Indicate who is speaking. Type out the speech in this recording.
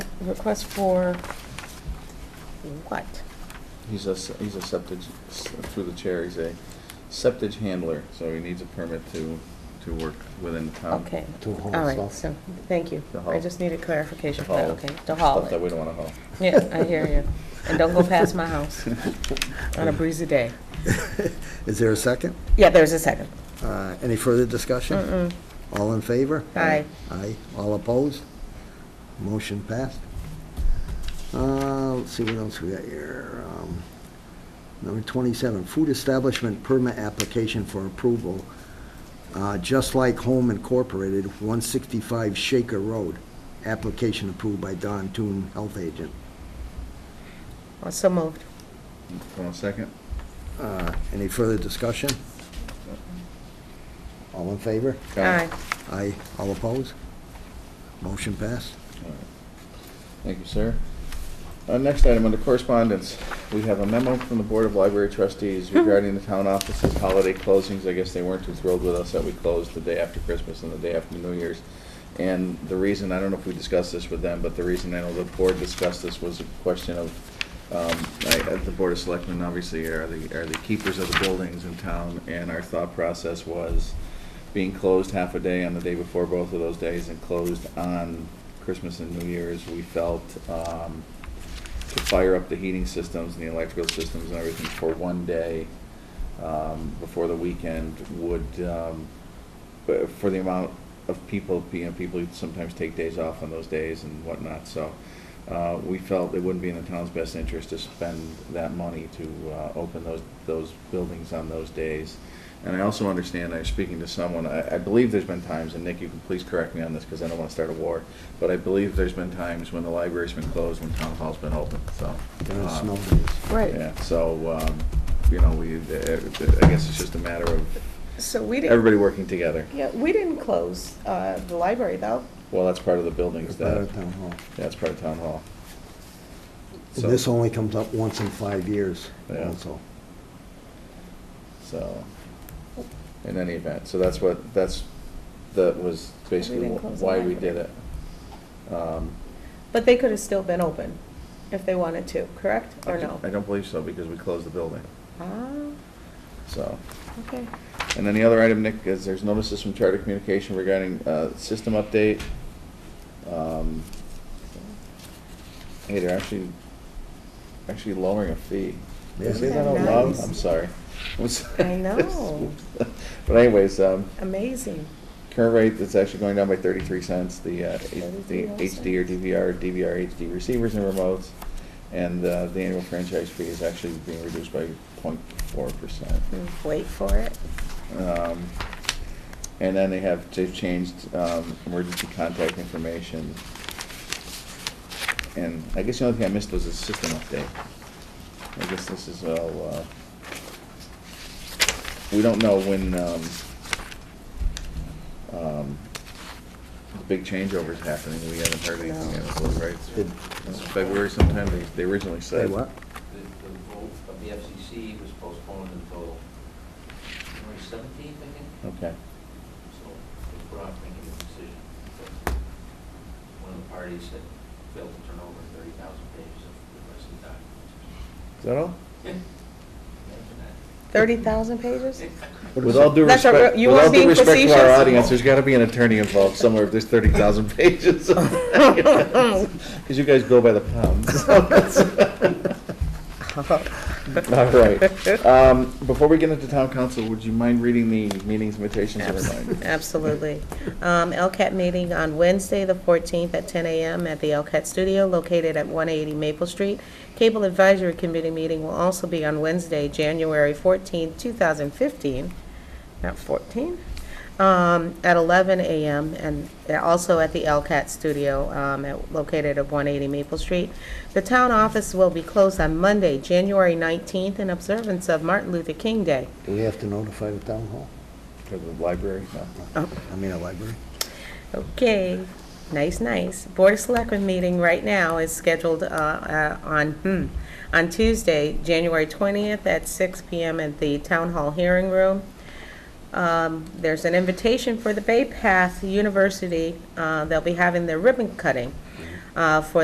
Speaker 1: The request for what?
Speaker 2: He's a, he's a septage, through the chair, he's a septage handler, so he needs a permit to, to work within the town.
Speaker 1: Okay,
Speaker 3: To haul
Speaker 1: all right,
Speaker 3: stuff.
Speaker 1: so, thank you.
Speaker 2: Um, To haul.
Speaker 1: I just needed clarification
Speaker 2: To
Speaker 1: for that,
Speaker 2: haul
Speaker 1: okay, to haul
Speaker 2: Stuff that we
Speaker 1: it.
Speaker 2: don't wanna haul.
Speaker 1: Yeah, I hear you. And don't go past my house on a breezy day.
Speaker 3: Is there a second?
Speaker 1: Yeah, there's a second.
Speaker 3: Uh, Any further discussion?
Speaker 1: Mm-mm.
Speaker 3: All in favor?
Speaker 1: Aye.
Speaker 3: Aye. All opposed? Motion passed. Uh, Let's see what else we got here. Um, Number 27, food establishment permit application for approval, Uh, Just Like Home Incorporated, 165 Shaker Road. Application approved by Don Toon, health agent.
Speaker 1: Oh, So moved.
Speaker 2: Want a second?
Speaker 3: Uh, Any further discussion? All in favor?
Speaker 1: All
Speaker 2: Aye.
Speaker 1: right,
Speaker 3: Aye. All opposed? Motion passed.
Speaker 2: All right. Thank you, sir. Uh, Next item under correspondence, we have a memo from the Board of Library Trustees regarding the town office's holiday closings. I guess they weren't too thrilled with us that we closed the day after Christmas and the day after New Year's. And the reason, I don't know if we discussed this with them, but the reason I know the board discussed this was a question of, um, I- uh, the Board of Selectmen obviously are the, are the keepers of the buildings in town, and our thought process was being closed half a day on the day before both of those days and closed on Christmas and New Year's, we felt, um, to fire up the heating systems and the electrical systems and everything for one day um, before the weekend would, um, but for the amount of people, you know, people who sometimes take days off on those days and whatnot, so uh, we felt it wouldn't be in the town's best interest to spend that money to uh, open those, those buildings on those days. And I also understand, I was speaking to someone, I, I believe there's been times, and Nick, you can please correct me on this, because I don't want to start a war, but I believe there's been times when the library's been closed, when town hall's been open, so.
Speaker 3: During
Speaker 2: um,
Speaker 3: snow days.
Speaker 1: right.
Speaker 2: Yeah, so, um, you know, we, I guess it's just a matter of
Speaker 1: So we didn't.
Speaker 2: everybody working together.
Speaker 1: Yeah, we didn't close uh, the library, though.
Speaker 2: Well, that's part of the buildings,
Speaker 3: Better
Speaker 2: that,
Speaker 3: town hall.
Speaker 2: that's part of town hall. So-
Speaker 3: This only comes up once in five years
Speaker 2: Yeah.
Speaker 3: also.
Speaker 2: So, in any event, so that's what, that's, that was basically
Speaker 1: didn't close the
Speaker 2: why we did
Speaker 1: library.
Speaker 2: it. Um,
Speaker 4: But they could have still been open if they wanted to, correct, or no?
Speaker 2: I don't believe so, because we closed the building,
Speaker 4: Ah,
Speaker 2: so.
Speaker 4: okay.
Speaker 2: And then the other item, Nick, is there's notices from Charter Communication regarding uh, system update. Um, Hey, they're actually, actually lowering a fee. Did I
Speaker 3: Yeah.
Speaker 2: say
Speaker 3: Isn't
Speaker 2: that
Speaker 3: that
Speaker 2: out loud?
Speaker 3: nice?
Speaker 2: I'm sorry. I'm sorry.
Speaker 4: I know.
Speaker 2: But anyways, um,
Speaker 4: Amazing.
Speaker 2: current rate is actually going down by thirty-three cents, the, uh, the
Speaker 4: 33
Speaker 2: HD or DVR, DVR HD receivers and remotes, and uh, the annual franchise fee is actually being reduced by 0.4 percent.
Speaker 1: Hmm,
Speaker 4: Wait for it.
Speaker 2: Um, And then they have, they've changed um, emergency contact information. And I guess the only thing I missed was a system update. I guess this is all, uh, we don't know when um, um, the big changeover's happening. We haven't heard anything yet, so, right?
Speaker 3: Did-
Speaker 2: It's February sometime, they- they originally
Speaker 3: Say
Speaker 2: said.
Speaker 3: what?
Speaker 5: The, the vote of the FCC was postponed until January seventeenth, I think,
Speaker 2: Okay.
Speaker 5: so we're not making a decision. One of the parties had failed to turn over thirty thousand pages of the rest of the documents.
Speaker 2: Is that all?
Speaker 5: Imagine that.
Speaker 1: 30,000 pages?
Speaker 3: What
Speaker 2: With
Speaker 3: is
Speaker 2: all
Speaker 3: it?
Speaker 2: due
Speaker 1: That's a
Speaker 2: respect,
Speaker 1: re- you
Speaker 2: with
Speaker 1: are
Speaker 2: all due
Speaker 1: being
Speaker 2: respect to our
Speaker 1: facetious.
Speaker 2: audience, there's gotta be an attorney involved somewhere if there's thirty thousand pages. Cause you guys go by the pound. All right. Um, before we get into town council, would you mind reading the meetings invitations and reminders?
Speaker 4: Absolutely. Um, LCAT meeting on Wednesday, the 14th, at 10 a.m. at the LCAT Studio located at 180 Maple Street. Cable Advisory Committee meeting will also be on Wednesday, January 14th, 2015, not 14, um, at 11 a.m., and also at the LCAT Studio um, at- located at 180 Maple Street. The town office will be closed on Monday, January 19th, in observance of Martin Luther King Day.
Speaker 3: Do we have to notify the town hall?
Speaker 2: For the library, no.
Speaker 3: No. I mean, a library?
Speaker 4: Okay, nice, nice. Board of Selectmen meeting right now is scheduled uh, uh, on, hmm, on Tuesday, January 20th at 6 PM at the Town Hall Hearing Room. Um, There's an invitation for the Bay Path University. uh, They'll be having their ribbon cutting uh, for